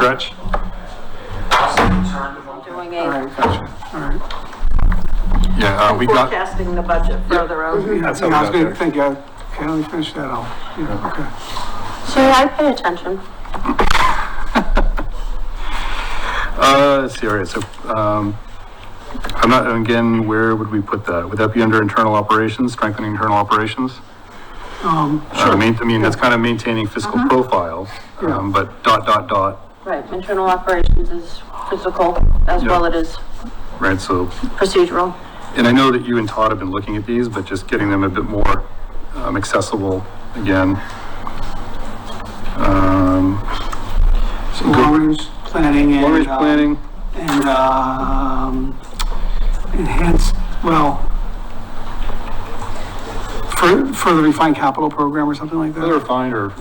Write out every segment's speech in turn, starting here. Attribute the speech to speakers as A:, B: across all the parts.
A: Stretch?
B: doing
C: All
B: a
C: right, gotcha, all right.
A: Yeah, uh, we got, yeah,
B: forecasting the budget further out.
C: Yeah, I
A: That's how we
C: was
A: got
C: gonna
A: there.
C: think, yeah, okay, let me finish that off. Yeah, okay.
D: See, I pay attention.
A: uh, let's see, all right, so, um, I'm not, again, where would we put that? Would that be under internal operations, strengthening internal operations?
C: Um,
A: Sure. I mean, I mean, that's kind of maintaining fiscal profile, um, but dot, dot, dot,
D: Right, internal operations is physical as well it is
A: right? So,
D: procedural.
A: and I know that you and Todd have been looking at these, but just getting them a bit more, um, accessible again. Um,
C: so long-range planning and.
A: long-range
C: uh,
A: planning,
C: And, um, enhanced, well, fur- further refine capital program or something like
A: further
C: that.
A: refined or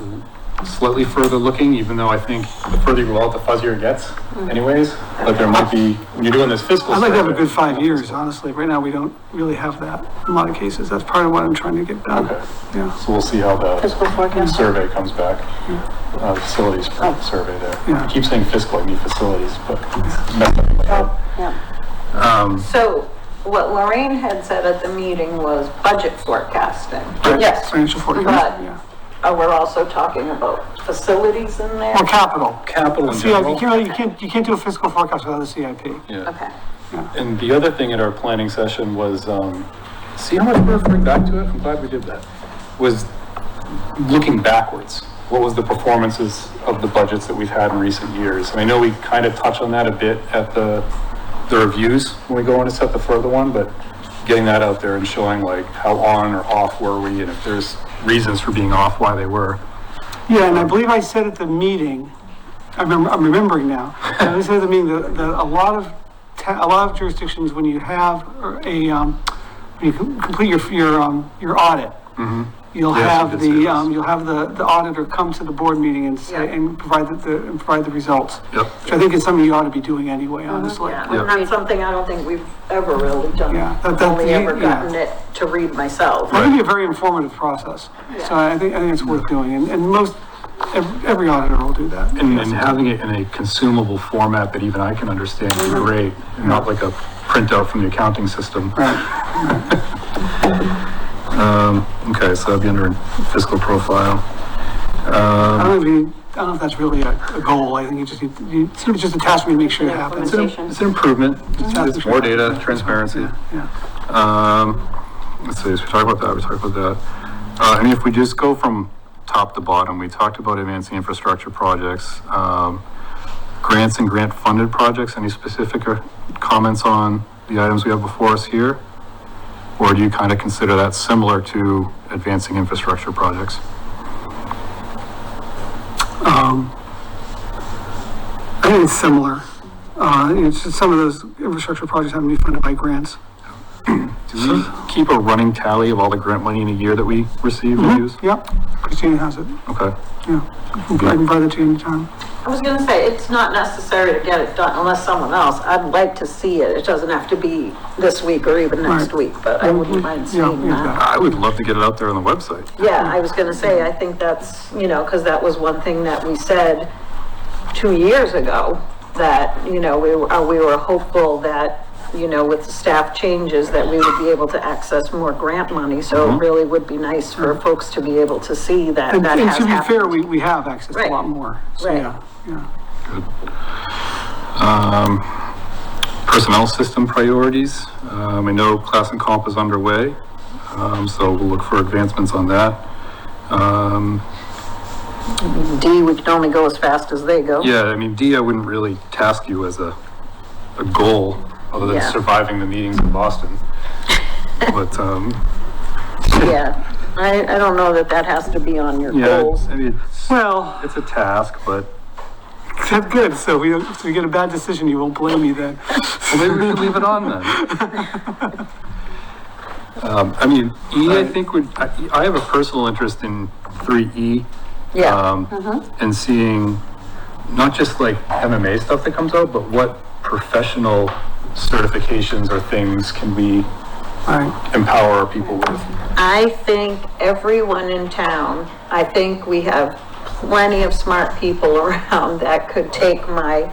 A: slightly further looking, even though I think the further you go out, the fuzzier it gets
C: Hmm.
A: anyways. Like there might be, when you're doing this fiscal.
C: I'd like to have a good
A: survey-
C: five years, honestly. Right now, we don't really have that in a lot of cases. That's part of what I'm trying to get done.
A: Okay.
C: Yeah,
A: So we'll see how
D: Fiscal
A: the
D: forecast.
A: survey comes back,
C: Hmm.
A: uh, facilities
C: Oh.
A: survey there.
C: Yeah.
A: I keep saying fiscal, I mean facilities, but
C: Hmm.
A: it's messed up in my head.
D: Yeah,
A: Um,
B: So what Lorraine had said at the meeting was budget forecasting.
D: yes.
C: financial forecast,
B: But-
C: yeah.
B: Uh, we're also talking about facilities in there.
C: Or capital.
A: capital in
C: See, you
A: general.
C: can't, you can't, you can't do a fiscal forecast without a CIP.
A: Yeah.
B: Okay.
A: And the other thing at our planning session was, um, see how much we're referring back to it? I'm glad we did that. Was looking backwards. What was the performances of the budgets that we've had in recent years? And I know we kind of touch on that a bit at the, the reviews when we go on to set the further one, but getting that out there and showing like how on or off were we and if there's reasons for being off, why they were.
C: Yeah, and I believe I said at the meeting, I remember, I'm remembering now, I said at the meeting that, that a lot of, ta- a lot of jurisdictions, when you have a, um, when you com- complete your, your, um, your audit, you'll
A: Mm-hmm. Yes, you
C: have
A: did say
C: the,
A: this.
C: um, you'll have the, the auditor come to the board meeting and say,
B: Yeah.
C: and provide the- the, and provide the results.
A: Yep.
C: Which I think is something you ought to be doing anyway, honestly.
B: Uh-huh. Yeah, and that's something I don't think we've ever really done.
C: Yeah, that-
B: I've
C: that-
B: Only ever
C: yeah.
B: gotten it to read myself.
C: I think it'd be a very informative process, so I think, I think it's worth doing, and, and most, ev- every auditor will do that.
A: And, and having it in a consumable format that even I can understand is great, and not like a printout from the accounting system.
C: Right,
A: Um, Okay, so that'd be under fiscal profile.
C: I don't know if you, I don't know if that's really a, a goal, I think you just need, you, it's just a task we make sure it happens.
A: It's an- It's an improvement,
C: Mm-hmm.
A: It's- it's more data, transparency.
C: Yeah,
A: Um, let's see, so we talked about that, we talked about that. Uh, I mean, if we just go from top to bottom, we talked about advancing infrastructure projects, um, grants and grant-funded projects, any specific uh, comments on the items we have before us here? Or do you kind of consider that similar to advancing infrastructure projects?
C: I think it's similar, uh, it's just some of those infrastructure projects have to be funded by grants.
A: Do we keep a running tally of all the grant money in a year that we receive and use?
C: Mm-hmm. Yep, Christina has it,
A: Okay,
C: yeah, I can buy that to you anytime.
B: I was gonna say, it's not necessary to get it done unless someone else, I'd like to see it. It doesn't have to be this week or even next
C: Right. Mm-hmm.
B: week, but I wouldn't mind
C: Yeah,
B: seeing that.
C: yeah,
A: I would love to get it out there on the website.
B: Yeah, I was gonna say,
C: Mm-hmm.
B: I think that's, you know, because that was one thing that we said two years ago, that, you know, we were, uh, we were hopeful that, you know, with the staff changes, that we would be able to access more grant money, so it really would be nice for folks to be able to see that
C: Mm-hmm. and,
B: that
C: and
B: has
C: to
B: happened.
C: be fair, we, we have access to a
B: Right.
C: lot more, so,
B: Right.
C: yeah, yeah.
A: Personnel system priorities, um, I know class and comp is underway, um, so we'll look for advancements on that. Um,
B: D, we can only go as fast as they go.
A: yeah, I mean, D, I wouldn't really task you as a, a goal, other than
B: Yeah.
A: surviving the meetings in Boston. But, um,
B: Yeah, I, I don't know that that has to be on your
A: yeah,
B: goals.
A: I mean, it's,
C: Well,
A: it's a task, but
C: That's good. So we, if we get a bad decision, you won't blame me then.
A: Well, Maybe we should leave it on then. Um, I mean, E, I think would, I, I have a personal interest in three E.
B: Yeah,
A: Um, and seeing not just like MMA stuff that comes out, but what professional certifications or things can we
C: All right.
A: empower our people with?
B: I think everyone in town, I think we have plenty of smart people around that could take my